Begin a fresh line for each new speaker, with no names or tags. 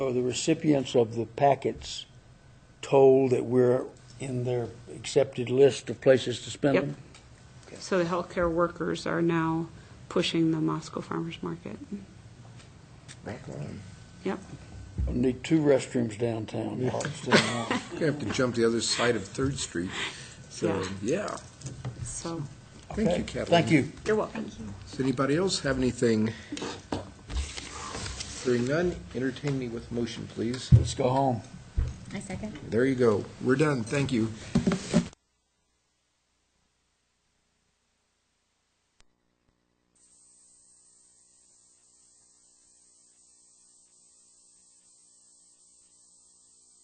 Are the recipients of the packets told that we're in their accepted list of places to spend
Yep.
them?
So the healthcare workers are now pushing the Moscow Farmers Market. Yep.
We'll Need two restrooms downtown.
You have to jump the other side of Third Street. So, yeah.
So
Thank you,
Okay.
Kathleen.
Thank you.
you're welcome.
Does anybody else have anything? Hearing none, entertain me with a motion, please.
Let's go home.
I second.
There you go. We're done. Thank you.